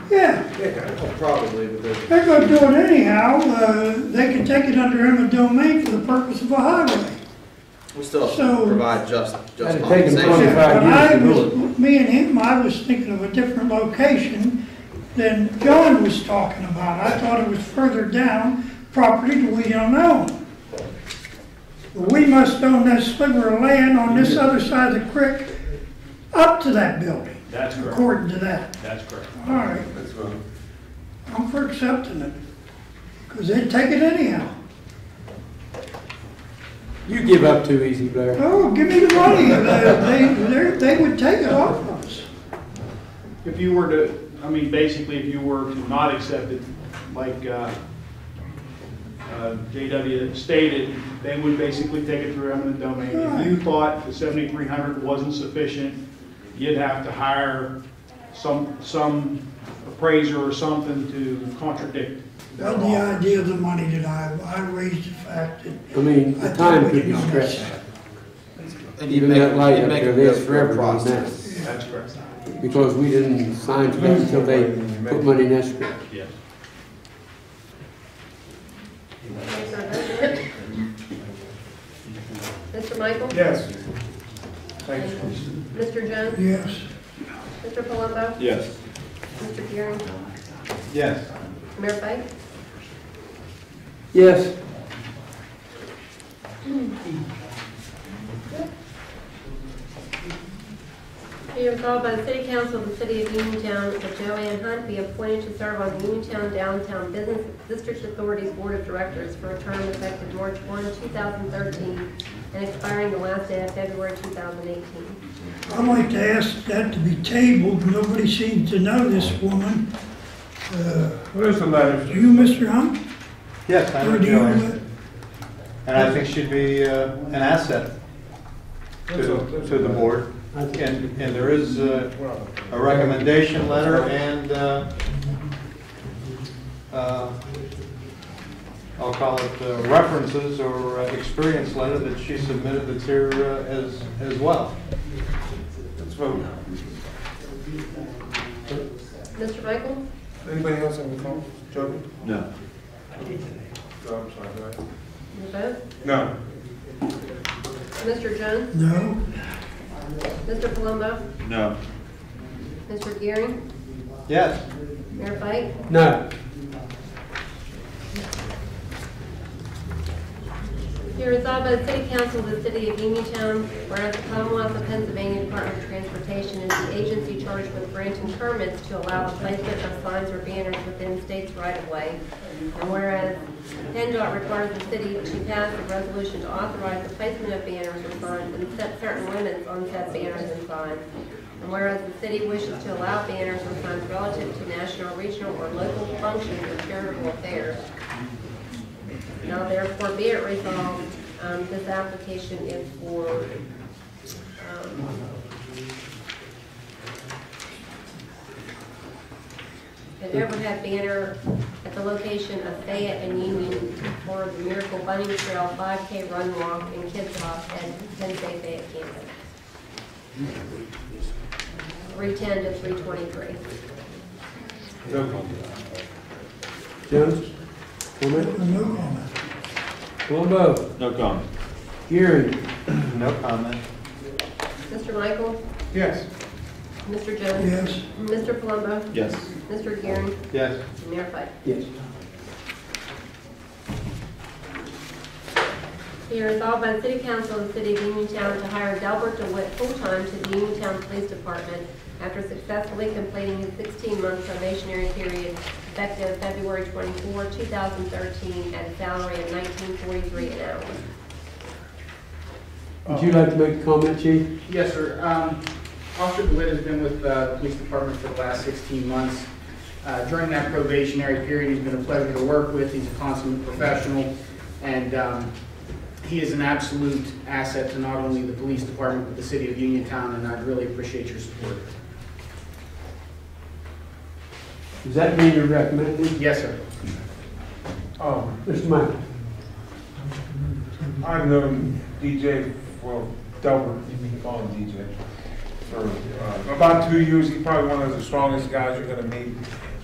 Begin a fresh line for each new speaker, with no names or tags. Yeah,
Yeah, probably, but there's,
they're gonna do it anyhow, uh, they can take it under eminent domain for the purpose of a highway.
we still have
So-
to provide just, just
That'd take them
compensation.
25
But I
years to
was-
do
Me and him, I was thinking of a different location than John was talking about. I thought it was further down, property that we don't own. But We must own that sliver of land on this other side of the creek up to that building,
That's correct,
according to that.
that's correct.
All right,
That's fine.
I'm for accepting it, because they'd take it anyhow.
You give up too easy, Blair.
Oh, give me the money, Uh, they, they're- they would take it off of us.
If you were to, I mean, basically, if you were to not accept it, like uh, uh, JW stated, they would basically take it through eminent domain. If you thought the 7,300 wasn't sufficient, you'd have to hire some, some appraiser or something to contradict that
Well, the
law.
idea of the money that I, I raised the fact that
I mean, the time could be stretched.
And you
Even
make,
that light
you
up
make
there,
them
that's
go through
forever
a
on
process.
that.
That's correct,
Because we didn't sign for that until they put money in escrow.
yes.
Mr. Michael?
Yes.
Mr. Jones?
Yes,
Mr. Palumbo?
Yes.
Mr. Gearing?
Yes.
Mayor Pike?
Yes,
Be resolved by the City Council of the City of Uniontown that Joanne Hunt be appointed to serve on the Uniontown Downtown Business District Authority's Board of Directors for a term effective March 1, 2013, and expiring the last day of February 2018.
I'd like to ask that to be tabled, nobody seems to know this woman. Uh,
Where's the letters?
Do you, Mr. Hunt?
Yes, I
Or
know
do you,
Joanne, and I think she'd be uh, an asset to, to the board. And, and there is uh, a recommendation letter and, uh, uh, I'll call it uh, references or uh, experience letter that she submitted that's here uh, as, as well.
Let's vote.
Mr. Michael?
Anybody else have a comment? Joby?
No.
No, I'm sorry, go ahead.
Your vote?
No.
Mr. Jones?
No?
Mr. Palumbo?
No.
Mr. Gearing?
Yes,
Mayor Pike?
no,
Be resolved by the City Council of the City of Uniontown, whereas the Commonwealth of Pennsylvania Department of Transportation is the agency charged with granting permits to allow the placement of signs or banners within states right-of-way. And whereas PennDOT requires the city to pass a resolution to authorize the placement of banners or signs and set certain limits on said banners and signs. And whereas the city wishes to allow banners or signs relative to national, regional, or local functions of charitable affairs. Now therefore be it resolved, um, this application is for, um, an overhead banner at the location of Fayette and Union for the Miracle Bunny Trail 5K Run Walk and Kids Walk at 10 Day Fayette campus. 310 to 323.
Jones? Comment?
No comment.
Palumbo?
No comment.
Gearing?
no comment.
Mr. Michael?
Yes.
Mr. Jones?
Yes,
Mr. Palumbo?
Yes.
Mr. Gearing?
Yes.
Mayor Pike?
Yes.
Be resolved by the City Council of the City of Uniontown to hire Delbert DeWitt full-time to the Uniontown Police Department after successfully completing his 16-month probationary period effective February 24, 2013, at a salary of $19.43 an hour.
Would you like to make a comment, Chief?
Yes, sir. Um, Officer DeWitt has been with uh, the police department for the last 16 months. Uh, During that probationary period, he's been a pleasure to work with. He's a consummate professional, and um, he is an absolute asset to not only the police department, but the city of Uniontown, and I'd really appreciate your support.
Does that mean you're recommending?
Yes, sir.
Um,
Mr. Michael?
I've known DJ, well, Delbert, you can call him DJ, for uh, about two years. He's probably one of the strongest guys you're gonna meet